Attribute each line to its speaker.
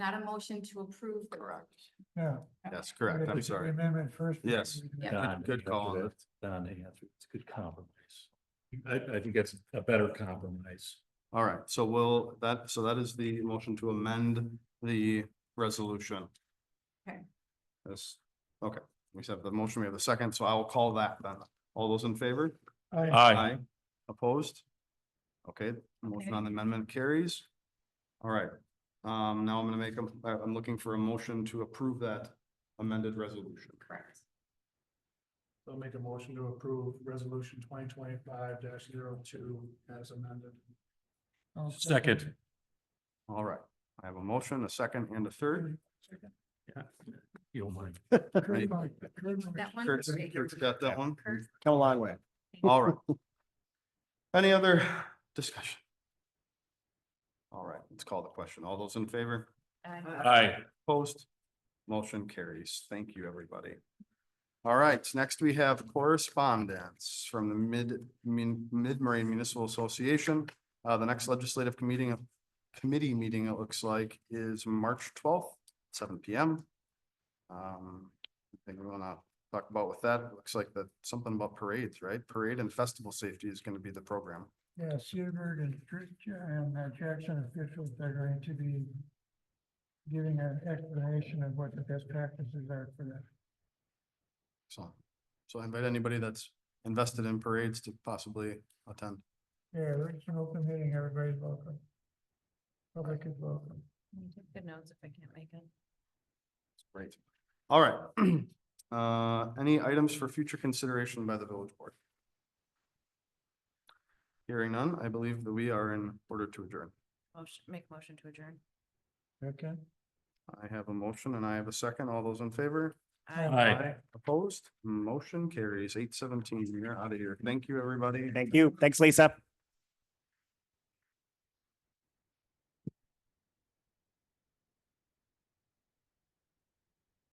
Speaker 1: not a motion to approve. the-
Speaker 2: Yeah.
Speaker 3: That's correct. I'm
Speaker 2: Make the
Speaker 3: sorry.
Speaker 2: Amendment first.
Speaker 3: Yes.
Speaker 1: Yeah.
Speaker 4: Don,
Speaker 3: Good
Speaker 4: you know,
Speaker 3: call on
Speaker 4: that's- Don, yeah, it's it's a good compromise. I, I think that's a better compromise.
Speaker 3: All right, so we'll, that, so that is the motion to amend the resolution.
Speaker 1: Okay.
Speaker 3: Yes, okay, we have the motion, we have the second, so I will call that then. All those in favor?
Speaker 2: I,
Speaker 3: Opposed? Okay, motion
Speaker 1: Okay.
Speaker 3: on the amendment carries. All right, um, now I'm gonna make, a- I- I'm looking for a motion to approve that amended resolution.
Speaker 1: Correct.
Speaker 2: will make a motion to approve resolution twenty twenty-five 2 as amended.
Speaker 4: Second.
Speaker 3: All right, I have a motion, a second and a third.
Speaker 4: You don't mind.
Speaker 1: That one.
Speaker 3: Kurt's, Kurt's got that one.
Speaker 1: Kurt?
Speaker 5: Come a long way.
Speaker 3: All right. Any other discussion? All right, let's call the question. All those in favor?
Speaker 1: Aye.
Speaker 4: Aye.
Speaker 3: Opposed? Motion carries. Thank you, everybody. All right, next we have correspondence from the Mid, Min- Mid-Marine Municipal Association. Uh, the next legislative committee, committee meeting, it looks like, is March twelfth, seven P M. Um, I think we wanna talk about with that, It looks like that, something about parades, right? Parade and festival safety is gonna be the program.
Speaker 2: Yeah, Seabird and Dr- and uh, Jackson officials are going to be giving an explanation of what the best practices are for that.
Speaker 3: So, so I invite anybody that's invested in parades to possibly attend.
Speaker 2: Yeah, it's an open meeting, everybody's welcome. Public is welcome.
Speaker 1: Good notes if I can't make it.
Speaker 3: Great. All right. Uh, any items for future consideration by the village board? Hearing none, I believe that we are in order to adjourn.
Speaker 1: Motion, make motion to adjourn.
Speaker 2: Okay.
Speaker 3: I have a motion and I have a second. All those in favor?
Speaker 4: Aye.
Speaker 3: Opposed? Motion carries eight seventeen. You're out of here. Thank you, everybody.
Speaker 5: Thank you. Thanks, Lisa.